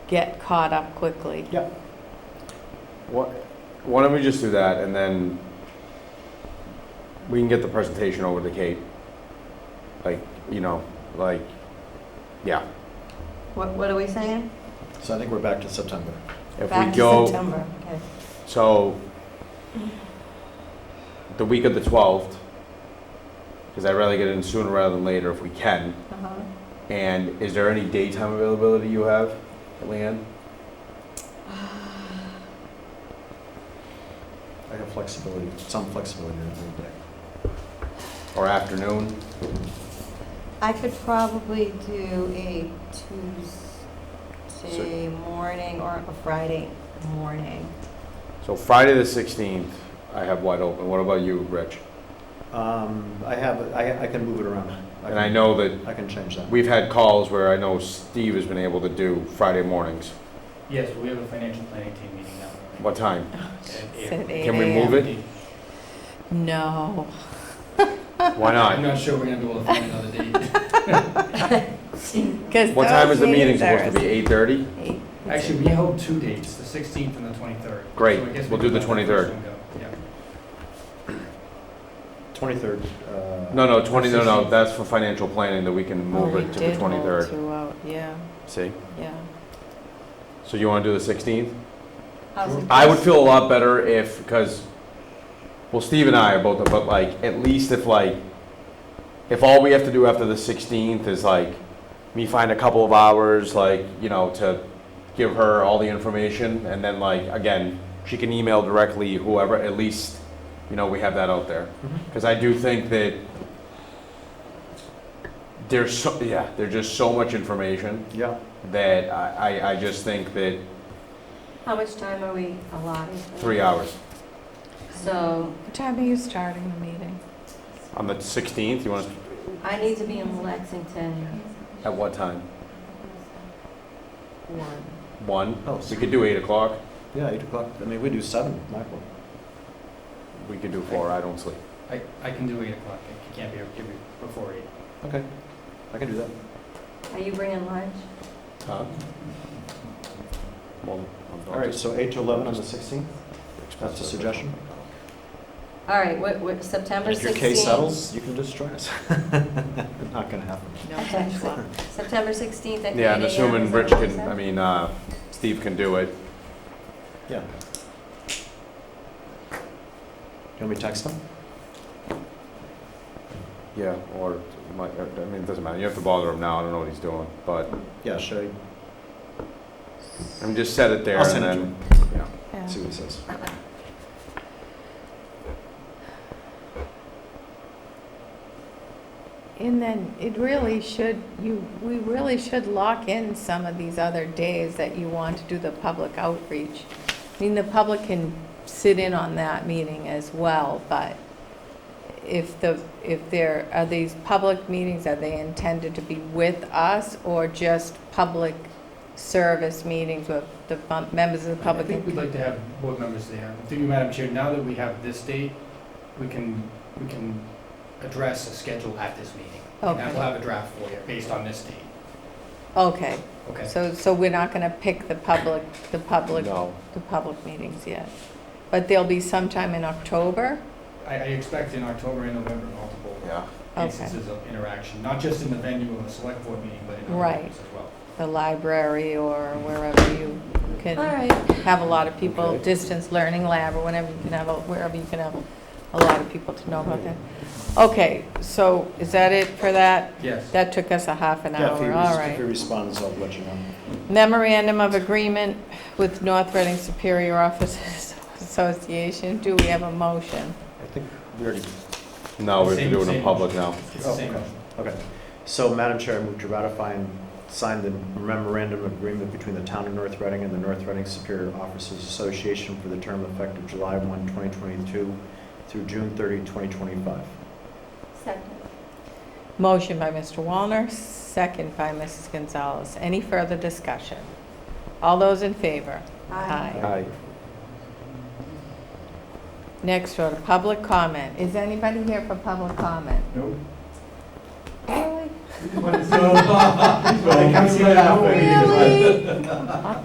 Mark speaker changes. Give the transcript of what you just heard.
Speaker 1: get caught up quickly.
Speaker 2: Yep.
Speaker 3: Why why don't we just do that and then we can get the presentation over to Kate? Like, you know, like, yeah.
Speaker 4: What, what are we saying?
Speaker 2: So I think we're back to September.
Speaker 3: If
Speaker 4: Back
Speaker 3: we
Speaker 4: to
Speaker 3: go,
Speaker 4: September, okay.
Speaker 3: so the week of the 12th, because I'd rather get it in sooner rather than later if we can.
Speaker 4: Uh-huh.
Speaker 3: And is there any daytime availability you have, Leanne?
Speaker 2: I have flexibility, some flexibility in the day.
Speaker 3: Or afternoon?
Speaker 4: I could probably do a Tuesday morning or a Friday morning.
Speaker 3: So Friday the 16th, I have wide open. What about you, Rich?
Speaker 2: Um, I have, I, I can move it around.
Speaker 3: And I
Speaker 2: can-
Speaker 3: know that
Speaker 2: I can change that.
Speaker 3: We've had calls where I know Steve has been able to do Friday mornings.
Speaker 5: Yes, we have a financial planning team meeting now.
Speaker 3: What time?
Speaker 1: It's at
Speaker 3: Can we
Speaker 1: 8
Speaker 3: move it?
Speaker 1: No.
Speaker 3: Why
Speaker 5: I'm
Speaker 3: not?
Speaker 5: not sure we're gonna be able to find another date.
Speaker 1: Because
Speaker 3: What time is the
Speaker 1: those
Speaker 3: meeting
Speaker 1: meetings
Speaker 3: supposed to be?
Speaker 1: are
Speaker 3: Eight thirty?
Speaker 1: eight-
Speaker 5: Actually, we held two dates, the 16th and the 23rd.
Speaker 3: Great,
Speaker 5: So I guess we
Speaker 3: we'll do
Speaker 5: can
Speaker 3: the
Speaker 5: let first
Speaker 3: 23rd.
Speaker 5: one go. Yeah.
Speaker 2: Twenty-third, uh.
Speaker 3: No, no, twenty, no, no, that's for financial planning that we can move
Speaker 1: Already
Speaker 3: it to
Speaker 1: Oh, did
Speaker 3: the
Speaker 1: hold
Speaker 3: twenty-third.
Speaker 1: two out, Yeah,
Speaker 3: See?
Speaker 1: yeah.
Speaker 3: So you want to do the sixteenth?
Speaker 4: How's it-
Speaker 3: I would feel a lot better if, because, well, Steve and I are both, but like, at least if like, if all we have to do after the sixteenth is like, me find a couple of hours, like, you know, to give her all the information, and then like, again, she can email directly whoever, at least, you know, we have that out there.
Speaker 2: Mhm.
Speaker 3: Because I do think that there's so, yeah, there's just so much information
Speaker 2: Yeah,
Speaker 3: that I, I, I just think that
Speaker 4: How much time are we allotted?
Speaker 3: three hours.
Speaker 4: So
Speaker 1: What time are you starting the meeting?
Speaker 3: On the 16th, you want to,
Speaker 4: I need to be in Lexington
Speaker 3: at what time?
Speaker 4: one.
Speaker 3: 1?
Speaker 2: oh,
Speaker 3: We
Speaker 2: so-
Speaker 3: could do 8 o'clock.
Speaker 2: yeah, eight o'clock, I mean, we do seven, my fault.
Speaker 3: We could do 4, I don't sleep.
Speaker 5: I, I can do 8 o'clock. It can't be, it can be before 8.
Speaker 2: okay, I can do that.
Speaker 4: Are you bringing lunch?
Speaker 3: Huh? Well,
Speaker 2: All right, so eight to eleven on the sixteenth, that's a suggestion.
Speaker 4: All right, what, what, September
Speaker 2: If your
Speaker 4: 16th?
Speaker 2: case settles, you can just join us. Not gonna happen.
Speaker 1: No
Speaker 4: Okay.
Speaker 1: time slot.
Speaker 4: September 16th at 8
Speaker 3: Yeah, I'm
Speaker 4: AM, is
Speaker 3: assuming
Speaker 4: that
Speaker 3: Rich
Speaker 4: what you
Speaker 3: can,
Speaker 4: said?
Speaker 3: I mean, uh, Steve can do it.
Speaker 2: Yeah. Can we text them?
Speaker 3: Yeah, or, my- or- I mean, it doesn't matter. You have to bother him now. I don't know what he's doing. But,
Speaker 2: Yeah, should
Speaker 3: I mean, just set it
Speaker 2: I?
Speaker 3: there
Speaker 2: I'll
Speaker 3: and
Speaker 2: send it to
Speaker 3: then,
Speaker 2: him,
Speaker 3: yeah.
Speaker 1: Yeah.
Speaker 2: see what he says.
Speaker 1: And then it really should, you, we really should lock in some of these other days that you want to do the public outreach. I mean, the public can sit in on that meeting as well, but if the, if there, are these public meetings, are they intended to be with us or just public service meetings with the fun- members of the
Speaker 5: I
Speaker 1: public?
Speaker 5: think we'd like to have board members there. Through you, Madam Chair, now that we have this date, we can, we can address a schedule at this meeting. And I
Speaker 1: Okay.
Speaker 5: will have a draft for you based on this date.
Speaker 1: Okay,
Speaker 5: Okay.
Speaker 1: so, so we're not going to pick the public, the public
Speaker 3: No.
Speaker 1: the public meetings yet. But they'll be sometime in October?
Speaker 5: I, I expect in October and November multiple
Speaker 3: Yeah.
Speaker 1: Okay,
Speaker 5: instances of interaction, not just in the venue of a select board meeting, but in other
Speaker 1: Right.
Speaker 5: meetings as well.
Speaker 1: the library or wherever you
Speaker 4: All
Speaker 1: can
Speaker 4: right,
Speaker 1: have a lot of people,
Speaker 3: Okay.
Speaker 1: distance learning lab or whenever you can have, a wherever you can have a lot of people to know about that. Okay, so is that it for that?
Speaker 5: Yes.
Speaker 1: That took us a half an
Speaker 2: Yeah, if he
Speaker 1: hour,
Speaker 2: res-
Speaker 1: all
Speaker 2: If he
Speaker 1: right.
Speaker 2: responds, I'll let you know.
Speaker 1: Memorandum of Agreement with North Reading Superior Officers Association, do we have a motion?
Speaker 2: I think we already,
Speaker 3: No, we have to
Speaker 5: Same-
Speaker 3: do it in
Speaker 5: same.
Speaker 3: public now.
Speaker 5: It's the
Speaker 2: Oh,
Speaker 5: same.
Speaker 2: okay. okay. So Madam Chair, I move to ratify and sign the memorandum of agreement between the Town of North Reading and the North Reading Superior Officers Association for the term effective July 1, 2022 through June 30, 2025.
Speaker 4: second.
Speaker 1: Motion by Mr. Wallner, second by Mrs. Gonzalez. Any further discussion? All those in favor?
Speaker 4: Aye.
Speaker 2: Aye.
Speaker 1: Next order, public comment. Is anybody here for public comment?
Speaker 5: No.
Speaker 1: Really?
Speaker 5: Come see that.
Speaker 1: Really?